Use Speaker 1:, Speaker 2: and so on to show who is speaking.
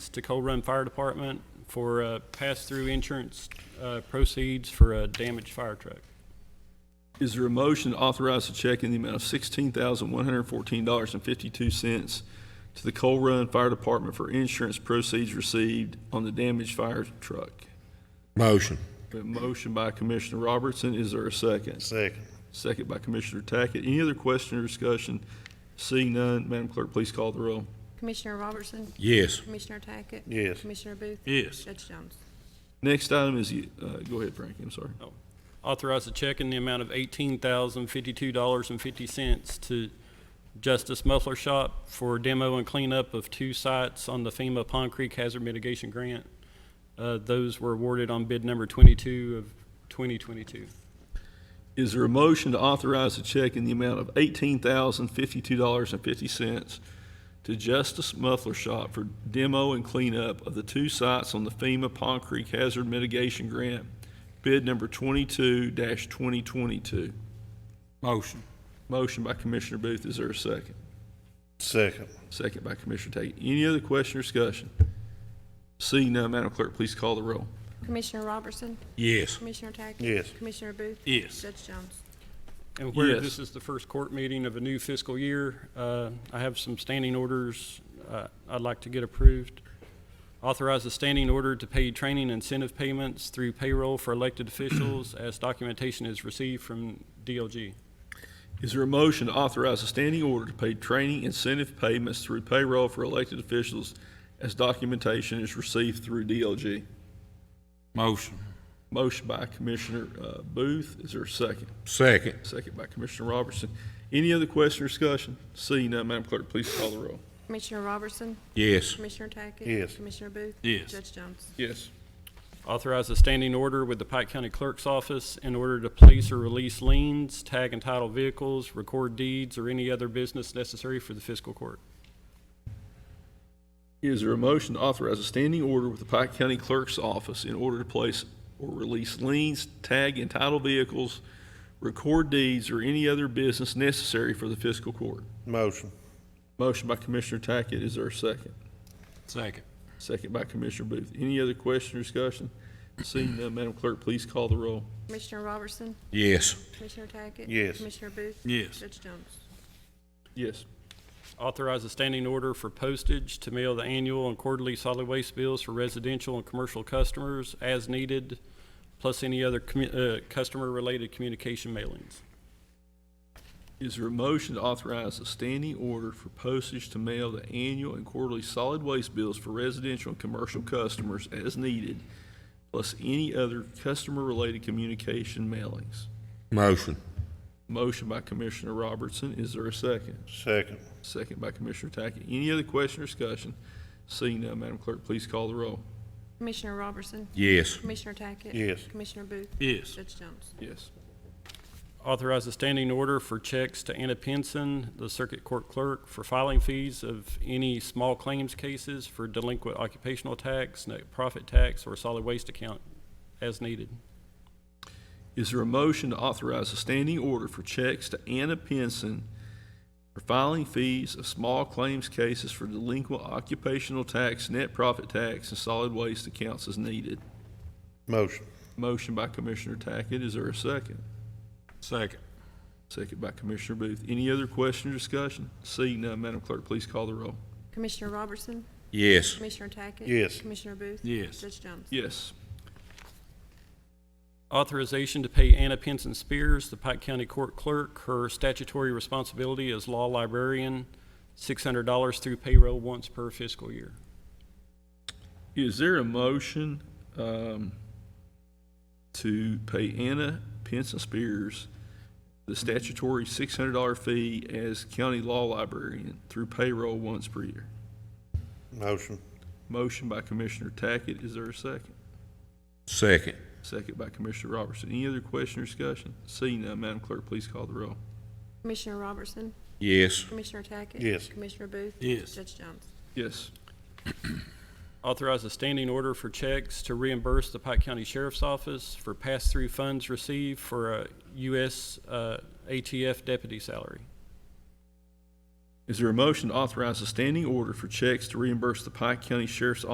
Speaker 1: to Coal Run Fire Department for uh, pass-through insurance uh, proceeds for a damaged fire truck.
Speaker 2: Is there a motion to authorize a check in the amount of sixteen thousand one hundred fourteen dollars and fifty-two cents to the Coal Run Fire Department for insurance proceeds received on the damaged fire truck?
Speaker 3: Motion.
Speaker 2: A motion by Commissioner Robertson, is there a second?
Speaker 3: Second.
Speaker 2: Second by Commissioner Tackett. Any other question or discussion? Seeing none, Madam Clerk, please call the roll.
Speaker 4: Commissioner Robertson,
Speaker 3: Yes.
Speaker 4: Commissioner Tackett.
Speaker 3: Yes.
Speaker 4: Commissioner Booth.
Speaker 1: Yes.
Speaker 4: Judge Jones.
Speaker 2: Next item is, the- uh, go ahead, Frankie, I'm sorry.
Speaker 1: Authorize a check in the amount of eighteen thousand fifty-two dollars and fifty cents to Justice Muffler Shop for demo and cleanup of two sites on the FEMA Pond Creek Hazard Mitigation Grant. Uh, Those were awarded on bid number twenty-two of twenty twenty-two.
Speaker 2: Is there a motion to authorize a check in the amount of eighteen thousand fifty-two dollars and fifty cents to Justice Muffler Shop for demo and cleanup of the two sites on the FEMA Pond Creek Hazard Mitigation Grant, bid number twenty-two twenty twenty-two?
Speaker 3: Motion.
Speaker 2: Motion by Commissioner Booth, is there a second?
Speaker 3: Second.
Speaker 2: Second by Commissioner Tackett. Any other question or discussion? Seeing none, Madam Clerk, please call the roll.
Speaker 4: Commissioner Robertson,
Speaker 3: Yes.
Speaker 4: Commissioner Tackett.
Speaker 3: Yes.
Speaker 4: Commissioner Booth.
Speaker 3: Yes.
Speaker 4: Judge Jones.
Speaker 1: And where
Speaker 2: Yes.
Speaker 1: this is the first court meeting of a new fiscal year, uh, I have some standing orders uh, I'd like to get approved. Authorize a standing order to pay training incentive payments through payroll for elected officials as documentation is received from DLG.
Speaker 2: Is there a motion to authorize a standing order to pay training incentive payments through payroll for elected officials as documentation is received through DLG?
Speaker 3: Motion.
Speaker 2: Motion by Commissioner uh, Booth, is there a second?
Speaker 3: Second.
Speaker 2: Second by Commissioner Robertson. Any other question or discussion? Seeing none, Madam Clerk, please call the roll.
Speaker 4: Commissioner Robertson,
Speaker 3: Yes.
Speaker 4: Commissioner Tackett.
Speaker 3: Yes.
Speaker 4: Commissioner Booth.
Speaker 3: Yes.
Speaker 4: Judge Jones.
Speaker 2: Yes.
Speaker 1: Authorize a standing order with the Pike County Clerk's Office in order to place or release liens, tag and title vehicles, record deeds, or any other business necessary for the fiscal court.
Speaker 2: Is there a motion to authorize a standing order with the Pike County Clerk's Office in order to place or release liens, tag and title vehicles, record deeds, or any other business necessary for the fiscal court?
Speaker 3: Motion.
Speaker 2: Motion by Commissioner Tackett, is there a second?
Speaker 3: Second.
Speaker 2: Second by Commissioner Booth. Any other question or discussion? Seeing none, Madam Clerk, please call the roll.
Speaker 4: Commissioner Robertson,
Speaker 3: Yes.
Speaker 4: Commissioner Tackett.
Speaker 3: Yes.
Speaker 4: Commissioner Booth.
Speaker 3: Yes.
Speaker 4: Judge Jones.
Speaker 2: Yes.
Speaker 1: Authorize a standing order for postage to mail the annual and quarterly solid waste bills for residential and commercial customers as needed, plus any other commu- uh, customer-related communication mailings.
Speaker 2: Is there a motion to authorize a standing order for postage to mail the annual and quarterly solid waste bills for residential and commercial customers as needed, plus any other customer-related communication mailings?
Speaker 3: Motion.
Speaker 2: Motion by Commissioner Robertson, is there a second?
Speaker 3: Second.
Speaker 2: Second by Commissioner Tackett. Any other question or discussion? Seeing none, Madam Clerk, please call the roll.
Speaker 4: Commissioner Robertson,
Speaker 3: Yes.
Speaker 4: Commissioner Tackett.
Speaker 3: Yes.
Speaker 4: Commissioner Booth.
Speaker 3: Yes.
Speaker 4: Judge Jones.
Speaker 2: Yes.
Speaker 1: Authorize a standing order for checks to Anna Pinson, the Circuit Court Clerk, for filing fees of any small claims cases for delinquent occupational tax, net profit tax, or solid waste account as needed.
Speaker 2: Is there a motion to authorize a standing order for checks to Anna Pinson for filing fees of small claims cases for delinquent occupational tax, net profit tax, and solid waste accounts as needed?
Speaker 3: Motion.
Speaker 2: Motion by Commissioner Tackett, is there a second?
Speaker 3: Second.
Speaker 2: Second by Commissioner Booth. Any other question or discussion? Seeing none, Madam Clerk, please call the roll.
Speaker 4: Commissioner Robertson,
Speaker 3: Yes.
Speaker 4: Commissioner Tackett.
Speaker 3: Yes.
Speaker 4: Commissioner Booth.
Speaker 3: Yes.
Speaker 4: Judge Jones.
Speaker 2: Yes.
Speaker 1: Authorization to pay Anna Pinson Spears, the Pike County Court Clerk, her statutory responsibility as law librarian, $600 through payroll once per fiscal year.
Speaker 2: Is there a motion um, to pay Anna Pinson Spears the statutory $600 fee as county law librarian through payroll once per year?
Speaker 3: Motion.
Speaker 2: Motion by Commissioner Tackett, is there a second?
Speaker 3: Second.
Speaker 2: Second by Commissioner Robertson. Any other question or discussion? Seeing none, Madam Clerk, please call the roll.
Speaker 4: Commissioner Robertson,
Speaker 3: Yes.
Speaker 4: Commissioner Tackett.
Speaker 3: Yes.
Speaker 4: Commissioner Booth.
Speaker 3: Yes.
Speaker 4: Judge Jones.
Speaker 2: Yes.
Speaker 1: Authorize a standing order for checks to reimburse the Pike County Sheriff's Office for pass-through funds received for a U.S. uh, ATF deputy salary.
Speaker 2: Is there a motion to authorize a standing order for checks to reimburse the Pike County Sheriff's